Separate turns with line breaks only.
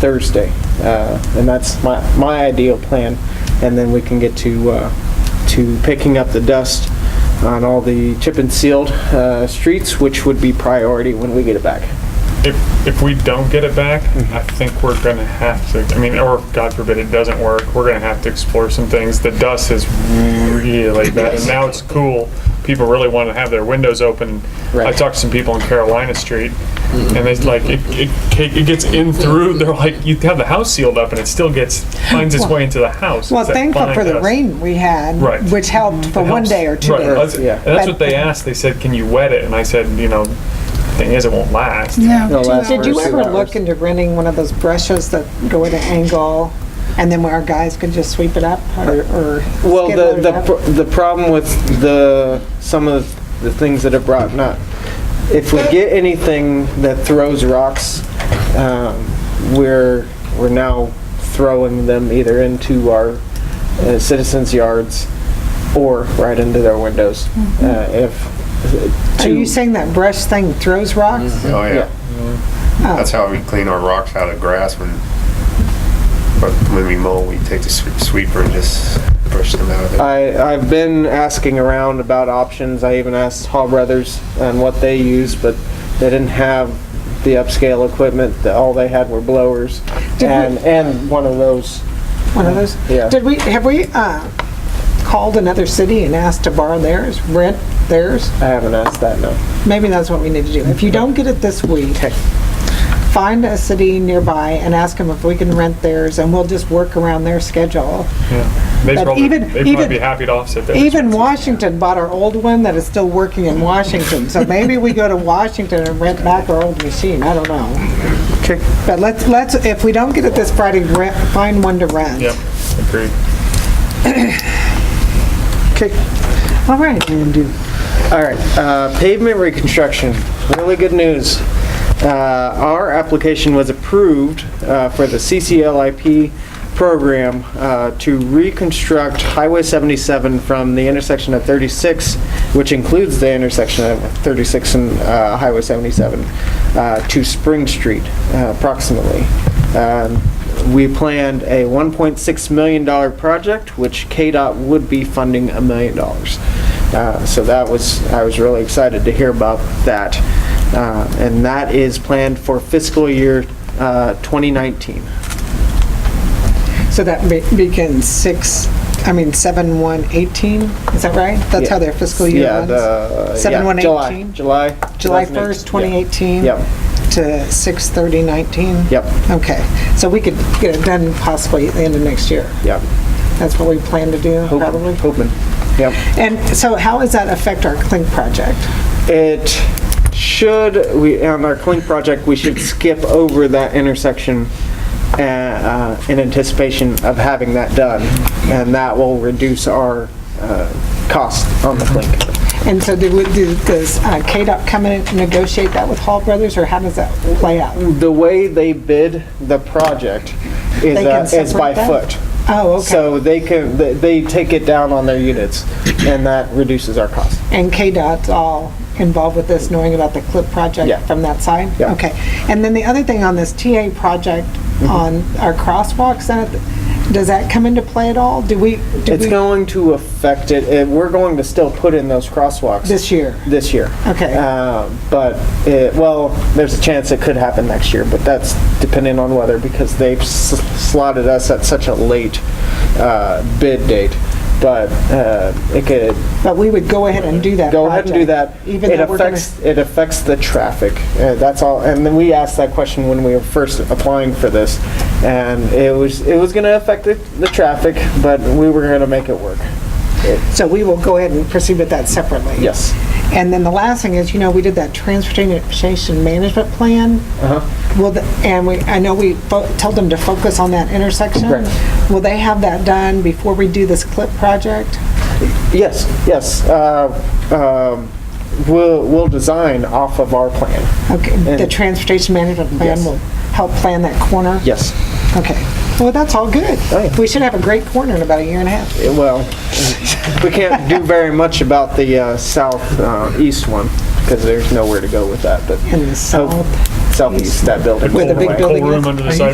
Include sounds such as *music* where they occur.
Thursday. Uh, And that's my, my ideal plan. And then we can get to, uh, to picking up the dust on all the chip and sealed uh, streets, which would be priority when we get it back.
If, if we don't get it back,
Mm-hmm.
I think we're gonna have to, I mean, or if, God forbid it doesn't work, we're gonna have to explore some things. The dust is really bad, and now it's cool. People really want to have their windows open. I
Right.
talked to some people on Carolina Street,
Mm-hmm.
and they like, it, it, ca- it gets in through, they're like, you have the house sealed up and it still gets, finds its way into the house.
Well,
It's that
thankful
fine
for the
dust.
rain we had,
Right.
which helped for one
Helps.
day or two
Right,
days.
that's-
Yeah.
and That's what
But-
they asked. They said, can you wet it? And I said, you know, thing is, it won't last.
No, last
Did you
hours, two
ever look
hours.
into renting one of those brushes that go at an angle and then where our guys could just sweep it up or, or
Well,
skid
the,
load
the,
it up?
pr- the problem with the, some of the things that are brought up, if we get anything that throws rocks, um, we're, we're now throwing them either into our uh, citizens' yards or right into their windows. Uh, if,
Mm-hmm. Are you
to- Mm-hmm.
saying that brush thing throws rocks?
Oh,
Yeah.
yeah. That's how we clean our rocks out of grass when, but when we mow, we take the swe- sweeper and just brush them out of there.
I, I've been asking around about options. I even asked Hall Brothers and what they use, but they didn't have the upscale equipment. The- All they had were blowers
Did we-
and, and one of those.
One of those?
Mm-hmm. Yeah.
Did we, have we, uh, called another city and asked to borrow theirs, rent theirs?
I haven't asked that, no.
Maybe that's what we need to do. If you
Mm-hmm.
don't get it this week, find a city nearby and ask them if we can rent theirs, and we'll just work around their schedule.
Yeah. They'd
But
probably,
even-
they'd probably
even-
be happy to offset that.
Even Washington bought our old one that is still working in Washington, so maybe we go to Washington and rent back our old machine, I don't know. But let's, let's, if we don't get it this Friday, rent- find one to rent.
Yep, agreed.
All right.
All right, uh, pavement reconstruction, really good news. Uh, Our application was approved uh, for the CCLIP program uh, to reconstruct Highway 77 from the intersection of 36, which includes the intersection of 36 and uh, Highway 77, uh, to Spring Street uh, approximately. Um, we planned a $1.6 million project, which KDOT would be funding a million dollars. Uh, So that was, I was really excited to hear about that. Uh, And that is planned for fiscal year uh, 2019.
So that be- begins six, I mean, seven, one, eighteen, is that right? That's how their fiscal year
Yeah,
runs?
the-
Seven,
yeah,
one,
July-
eighteen?
July.
July
2018.
1st, 2018?
Yep.
To 6/30/19?
Yep.
Okay, so we could get it done possibly at the end of next year.
Yep.
That's what we plan to do,
Hoping-
probably?
Hoping, yep.
And so how does that affect our Clink project?
It should, we, on our Clink project, we should skip over that intersection uh, uh, in anticipation of having that done. And that will reduce our uh, cost on the Clink.
And so do we- do- does uh, KDOT come in and negotiate that with Hall Brothers, or how does that play out?
The way they bid the project is,
They can
uh, is by
separate that?
foot.
Oh, okay.
So they can, they- they take it down on their units, and that reduces our cost.
And KDOT's all involved with this, knowing about the CLIP
Yeah.
project from that side?
Yeah. Mm-hmm.
Okay. And then the other thing on this TA project on our crosswalks, that- does that come into play at all? Do we, do
It's
we,
going to affect it, and we're going to still put in those crosswalks.
this year?
this year.
Okay.
Uh, But, it- well, there's a chance it could happen next year, but that's depending on weather because they've s- slotted us at such a late uh, bid date. But uh, it could,
But we would go ahead and do that
go ahead and do that.
project, Even
It
though we're gonna-
affects, it affects the traffic. Uh, That's all, and then we asked that question when we were first applying for this. And it was, it was going to affect the, the traffic, but we were going to make it work.
So we will go ahead and proceed with that separately?
Yes.
And then the last thing is, you know, we did that transportation management plan.
Uh-huh.
Will, the- and we, I know we fo- told them to focus on that intersection.
Right.
Will they have that done before we do this CLIP project?
Yes, yes. uh, um, We'll, we'll design off of our plan.
Okay, the
And-
transportation management plan
Yes.
will help plan that corner?
Yes.
Okay. Well, that's all good.
Oh, yeah.
We should have a great corner in about a year and a half.
Eh, Well, *laughs* we can't do very much about the uh, southeast one because there's nowhere to go with that, but.
In the
hope-
south.
Southeast, that building.
With a big
Anyway.
building
Whole room
is-
under the
Are you
sidewalk.